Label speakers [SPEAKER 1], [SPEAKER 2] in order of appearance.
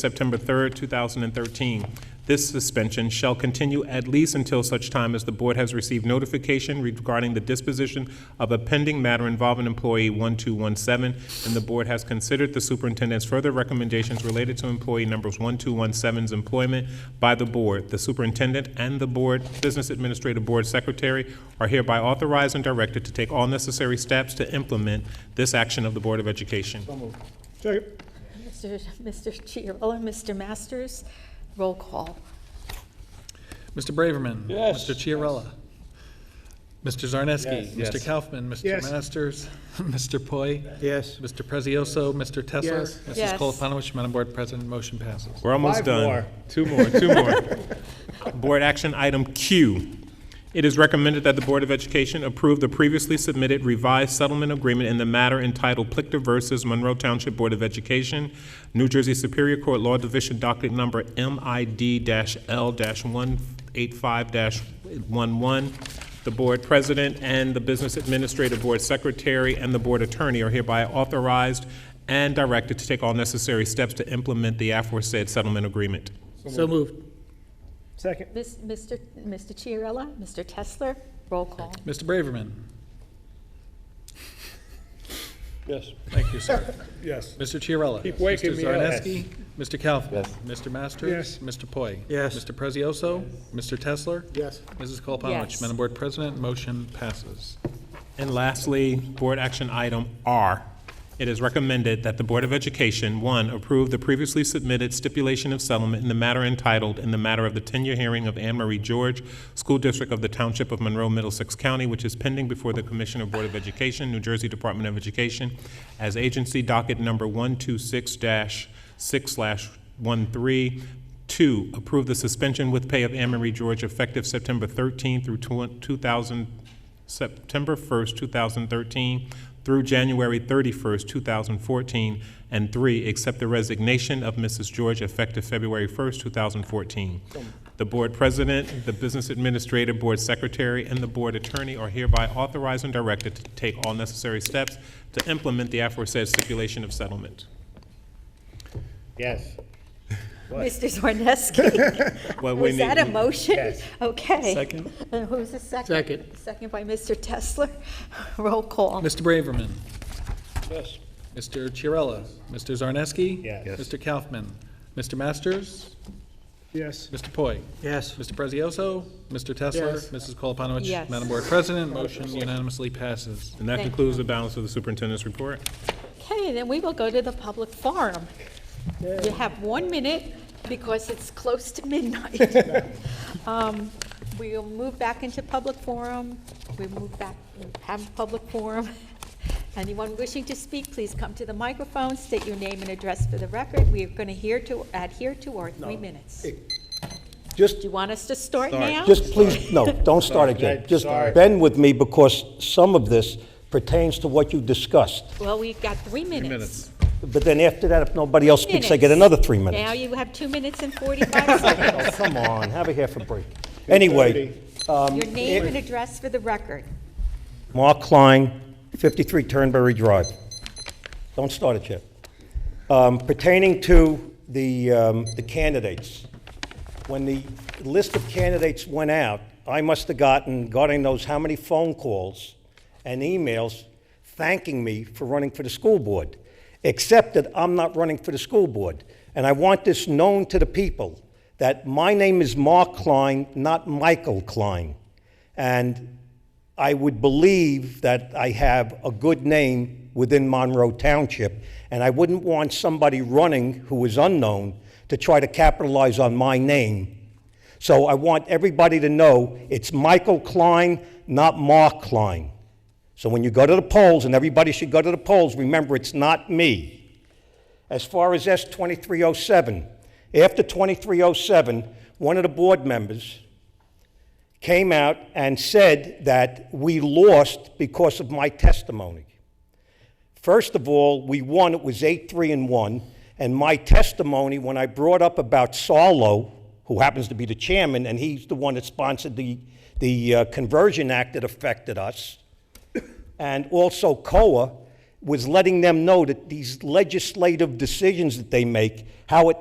[SPEAKER 1] September 3rd, 2013. This suspension shall continue at least until such time as the board has received notification regarding the disposition of a pending matter involving employee 1217, and the board has considered the superintendent's further recommendations related to employee numbers 1217's employment by the board. The superintendent and the board, business administrative board secretary are hereby authorized and directed to take all necessary steps to implement this action of the Board of Education.
[SPEAKER 2] Second.
[SPEAKER 3] Mr. Mr. Chiarella, Mr. Masters, roll call.
[SPEAKER 4] Mr. Braverman.
[SPEAKER 2] Yes.
[SPEAKER 4] Mr. Chiarella. Mr. Zarneski.
[SPEAKER 2] Yes.
[SPEAKER 4] Mr. Kaufman. Mr.
[SPEAKER 2] Yes.
[SPEAKER 4] Masters. Mr. Poi.
[SPEAKER 2] Yes.
[SPEAKER 4] Mr. Prezioso. Mr. Tesser.
[SPEAKER 2] Yes.
[SPEAKER 4] Mrs.
[SPEAKER 3] Yes.
[SPEAKER 4] Colapanowicz, Madam Board President, motion passes.
[SPEAKER 1] We're almost
[SPEAKER 2] Five
[SPEAKER 1] done.
[SPEAKER 2] more.
[SPEAKER 1] Two more, two more. Board action item Q. It is recommended that the Board of Education approve the previously submitted revised settlement agreement in the matter entitled Plickter versus Monroe Township Board of Education, New Jersey Superior Court Law Division docket number MID-L-185-11. The board president and the business administrative board secretary and the board attorney are hereby authorized and directed to take all necessary steps to implement the aforesaid settlement agreement.
[SPEAKER 5] So moved.
[SPEAKER 2] Second.
[SPEAKER 3] Mis- Mr. Mr. Chiarella, Mr. Tesler, roll call.
[SPEAKER 4] Mr. Braverman.
[SPEAKER 2] Yes.
[SPEAKER 4] Thank you, sir.
[SPEAKER 2] Yes.
[SPEAKER 4] Mr. Chiarella.
[SPEAKER 2] Keep waking
[SPEAKER 4] Mr.
[SPEAKER 2] me up.
[SPEAKER 4] Zarneski. Mr. Kaufman. Mr.
[SPEAKER 2] Yes.
[SPEAKER 4] Masters. Mr. Poi.
[SPEAKER 5] Yes.
[SPEAKER 4] Mr. Prezioso. Mr. Tesler.
[SPEAKER 2] Yes.
[SPEAKER 4] Mrs. Colapanowicz,
[SPEAKER 3] Yes.
[SPEAKER 4] Madam Board President, motion passes.
[SPEAKER 1] And lastly, board action item R. It is recommended that the Board of Education, one, approve the previously submitted stipulation of settlement in the matter entitled, in the matter of the tenure hearing of Anne Marie George, School District of the Township of Monroe, Middlesex County, which is pending before the Commissioner of Board of Education, New Jersey Department of Education, as agency docket number 126-6/13, Two, approve the suspension with pay of Anne Marie George effective September 13 through twen- 2000, September 1st, 2013 through January 31st, 2014. And three, accept the resignation of Mrs. George effective February 1st, 2014. The board president, the business administrator, board secretary, and the board attorney are hereby authorized and directed to take all necessary steps to implement the aforesaid stipulation of settlement.
[SPEAKER 2] Yes.
[SPEAKER 3] Mr. Zorneski,
[SPEAKER 1] Well, we
[SPEAKER 3] was that a
[SPEAKER 1] need-
[SPEAKER 3] motion?
[SPEAKER 2] Yes.
[SPEAKER 3] Okay.
[SPEAKER 4] Second.
[SPEAKER 3] And who's the second?
[SPEAKER 5] Second.
[SPEAKER 3] Second by Mr. Tesler, roll call.
[SPEAKER 4] Mr. Braverman.
[SPEAKER 2] Yes.
[SPEAKER 4] Mr. Chiarella. Mr. Zarneski.
[SPEAKER 2] Yes. Yes.
[SPEAKER 4] Mr. Kaufman. Mr. Masters.
[SPEAKER 2] Yes.
[SPEAKER 4] Mr. Poi.
[SPEAKER 5] Yes.
[SPEAKER 4] Mr. Prezioso, Mr. Tesler,
[SPEAKER 5] Yes.
[SPEAKER 4] Mrs. Colapanowicz.
[SPEAKER 3] Yes.
[SPEAKER 4] Madam Board President, motion unanimously passes.
[SPEAKER 1] And that
[SPEAKER 3] Thank
[SPEAKER 1] concludes the balance of the superintendent's report.
[SPEAKER 3] Okay, then we will go to the public forum. You have one minute because it's close to midnight. Um, We'll move back into public forum. We move back, have public forum. Anyone wishing to speak, please come to the microphone, state your name and address for the record. We are going to adhere to, adhere to our three minutes. Do
[SPEAKER 6] Just,
[SPEAKER 3] you want us to start now?
[SPEAKER 6] just please, no, don't start again.
[SPEAKER 2] Sorry.
[SPEAKER 6] Just
[SPEAKER 2] Sorry.
[SPEAKER 6] bend with me because some of this pertains to what you discussed.
[SPEAKER 3] Well, we've got three minutes.
[SPEAKER 6] But then after that, if nobody else speaks, I get another three
[SPEAKER 3] Now
[SPEAKER 6] minutes.
[SPEAKER 3] you have two minutes and 45 seconds.
[SPEAKER 6] Oh, Come on, have a half a break. Anyway,
[SPEAKER 3] Your name and address for the record.
[SPEAKER 6] Mark Klein, 53 Turnberry Drive. Don't start it yet. Um, Pertaining to the um, the candidates, when the list of candidates went out, I must have gotten, God only knows how many phone calls and emails thanking me for running for the school board, except that I'm not running for the school board. And I want this known to the people, that my name is Mark Klein, not Michael Klein. And I would believe that I have a good name within Monroe Township, and I wouldn't want somebody running who is unknown to try to capitalize on my name. So I want everybody to know it's Michael Klein, not Mark Klein. So when you go to the polls, and everybody should go to the polls, remember it's not me. As far as S 2307, after 2307, one of the board members, came out and said that we lost because of my testimony. First of all, we won, it was 8 3 and 1. And my testimony, when I brought up about Sarlo, who happens to be the chairman, and he's the one that sponsored the, the uh, Conversion Act that affected us, and also COA, was letting them know that these legislative decisions that they make, how it